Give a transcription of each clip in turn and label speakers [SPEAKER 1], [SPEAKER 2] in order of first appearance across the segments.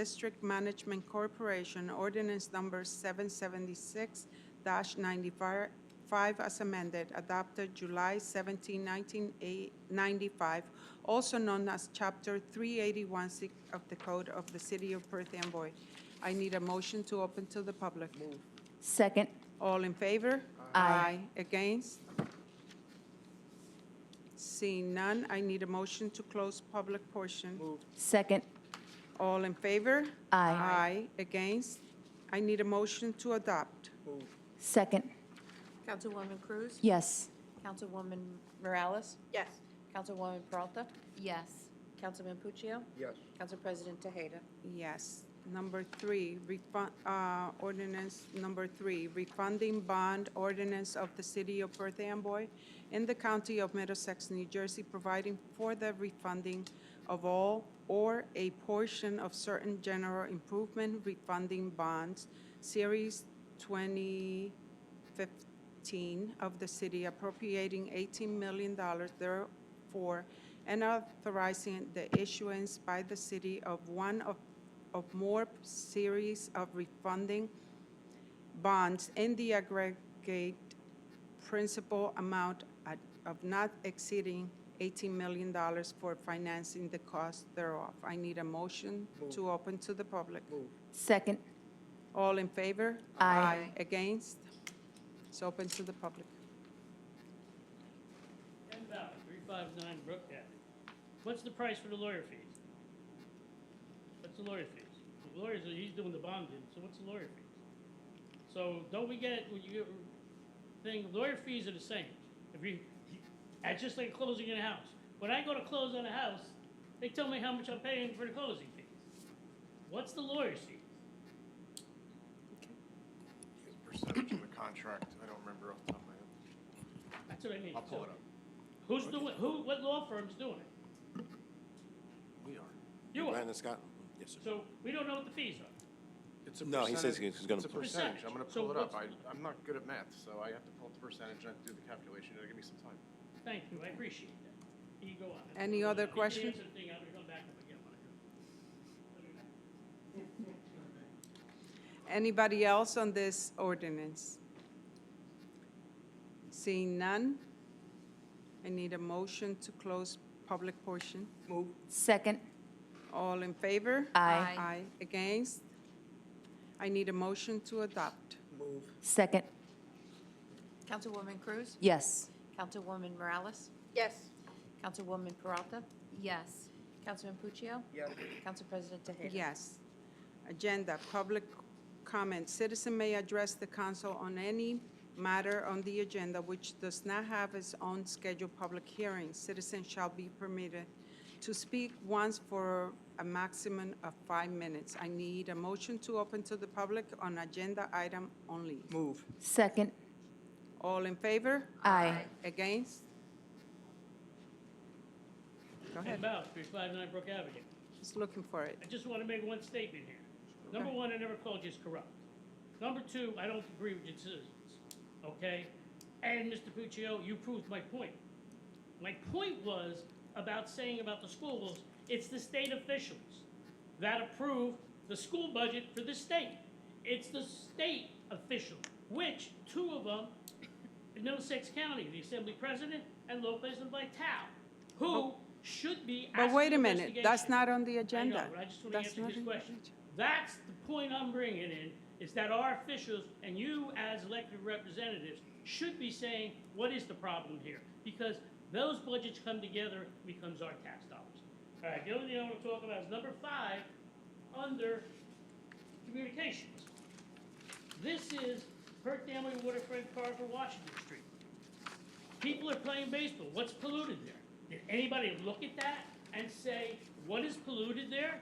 [SPEAKER 1] District Management Corporation, ordinance number 776-95 as amended, adopted July 17, 1995, also known as Chapter 381 si- of the Code of the City of Perth Amboy. I need a motion to open to the public.
[SPEAKER 2] Second.
[SPEAKER 1] All in favor?
[SPEAKER 2] Aye.
[SPEAKER 1] Against? Seeing none, I need a motion to close public portion.
[SPEAKER 2] Second.
[SPEAKER 1] All in favor?
[SPEAKER 2] Aye.
[SPEAKER 1] Aye. Against? I need a motion to adopt.
[SPEAKER 2] Second.
[SPEAKER 3] Councilwoman Cruz?
[SPEAKER 2] Yes.
[SPEAKER 3] Councilwoman Morales?
[SPEAKER 1] Yes.
[SPEAKER 3] Councilwoman Peralta?
[SPEAKER 2] Yes.
[SPEAKER 3] Councilman Puccio?
[SPEAKER 4] Yes.
[SPEAKER 3] Council President Tejeda?
[SPEAKER 1] Yes. Number three, refund, uh, ordinance number three, refunding bond ordinance of the city of Perth Amboy in the county of Middlesex, New Jersey, providing for the refunding of all or a portion of certain general improvement refunding bonds, series twenty 15 of the city appropriating $18 million therefore and authorizing the issuance by the city of one of, of more series of refunding bonds in the aggregate principal amount at- of not exceeding $18 million for financing the cost thereof. I need a motion to open to the public.
[SPEAKER 2] Second.
[SPEAKER 1] All in favor?
[SPEAKER 2] Aye.
[SPEAKER 1] Against? It's open to the public.
[SPEAKER 5] Ken Bauer, three five nine Brook Avenue. What's the price for the lawyer fees? What's the lawyer fees? The lawyers, are- he's doing the bonding, so what's the lawyer fees? So don't we get, when you get, thing, lawyer fees are the same. If you, it's just like closing in a house. When I go to close on a house, they tell me how much I'm paying for the closing fees. What's the lawyer's fees?
[SPEAKER 4] Percentage of the contract, I don't remember off the top of my head.
[SPEAKER 5] That's what I mean.
[SPEAKER 4] I'll pull it
[SPEAKER 5] So
[SPEAKER 4] up.
[SPEAKER 5] Who's doing, who, what law firm's doing it?
[SPEAKER 4] We are.
[SPEAKER 5] You are.
[SPEAKER 6] Brandon Scott? Yes, sir.
[SPEAKER 5] So we don't know what the fees are.
[SPEAKER 4] It's a
[SPEAKER 6] No, he says
[SPEAKER 4] percentage-
[SPEAKER 6] he's gonna
[SPEAKER 4] It's a
[SPEAKER 6] pull it.
[SPEAKER 4] percentage, I'm gonna
[SPEAKER 5] Percentage. So
[SPEAKER 4] pull it up, I,
[SPEAKER 5] what's-
[SPEAKER 4] I'm not good at math, so I have to pull up the percentage and do the calculation, it'll give me some time.
[SPEAKER 5] Thank you, I appreciate that. You go on.
[SPEAKER 1] Any other
[SPEAKER 5] If you
[SPEAKER 1] question?
[SPEAKER 5] answer the thing, I'm gonna come back up again when I go.
[SPEAKER 1] Anybody else on this ordinance? Seeing none, I need a motion to close public portion.
[SPEAKER 2] Second.
[SPEAKER 1] All in favor?
[SPEAKER 2] Aye.
[SPEAKER 1] Aye. Against? I need a motion to adopt.
[SPEAKER 2] Second.
[SPEAKER 3] Councilwoman Cruz?
[SPEAKER 2] Yes.
[SPEAKER 3] Councilwoman Morales?
[SPEAKER 1] Yes.
[SPEAKER 3] Councilwoman Peralta?
[SPEAKER 2] Yes.
[SPEAKER 3] Councilman Puccio? Council President Tejeda?
[SPEAKER 1] Yes. Agenda, public comment. Citizen may address the council on any matter on the agenda which does not have its own scheduled public hearing. Citizen shall be permitted to speak once for a maximum of five minutes. I need a motion to open to the public on agenda item only.
[SPEAKER 2] Second.
[SPEAKER 1] All in favor?
[SPEAKER 2] Aye.
[SPEAKER 1] Against? Go
[SPEAKER 5] Ken
[SPEAKER 1] ahead.
[SPEAKER 5] Bowles, three five nine Brook Avenue.
[SPEAKER 1] Just looking for it.
[SPEAKER 5] I just wanna make one statement here. Number
[SPEAKER 1] Okay.
[SPEAKER 5] one, I never called you corrupt. Number two, I don't agree with your decisions, okay? And Mr. Puccio, you proved my point. My point was about saying about the schools, it's the state officials that approve the school budget for the state. It's the state official, which two of them in Middlesex County, the Assembly President and Lopez and Vital, who should be asking
[SPEAKER 1] But wait a minute, that's
[SPEAKER 5] investigation.
[SPEAKER 1] not on the
[SPEAKER 5] I know,
[SPEAKER 1] agenda.
[SPEAKER 5] but I just want to
[SPEAKER 1] That's
[SPEAKER 5] answer
[SPEAKER 1] not
[SPEAKER 5] his
[SPEAKER 1] on the
[SPEAKER 5] question.
[SPEAKER 1] agenda.
[SPEAKER 5] That's the point I'm bringing in, is that our officials and you as elected representatives should be saying, what is the problem here? Because those budgets come together, becomes our tax dollars. All right, the other thing I want to talk about is number five, under communications. This is Perth Amboy Waterfront Park for Washington Street. People are playing baseball. What's polluted there? Did anybody look at that and say, what is polluted there?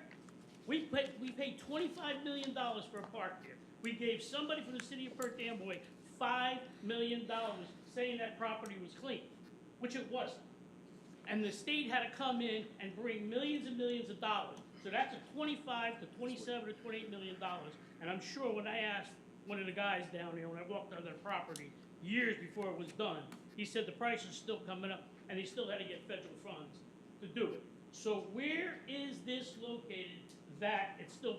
[SPEAKER 5] We paid, we paid twenty-five million dollars for a park there. We gave somebody from the city of Perth Amboy five million dollars saying that property was clean, which it wasn't. And the state had to come in and bring millions and millions of dollars. So that's a twenty-five to twenty-seven to twenty-eight million dollars. And I'm sure when I asked one of the guys down there, when I walked on their property years before it was done, he said the price is still coming up and they still had to get federal funds to do it. So where is this located that it's still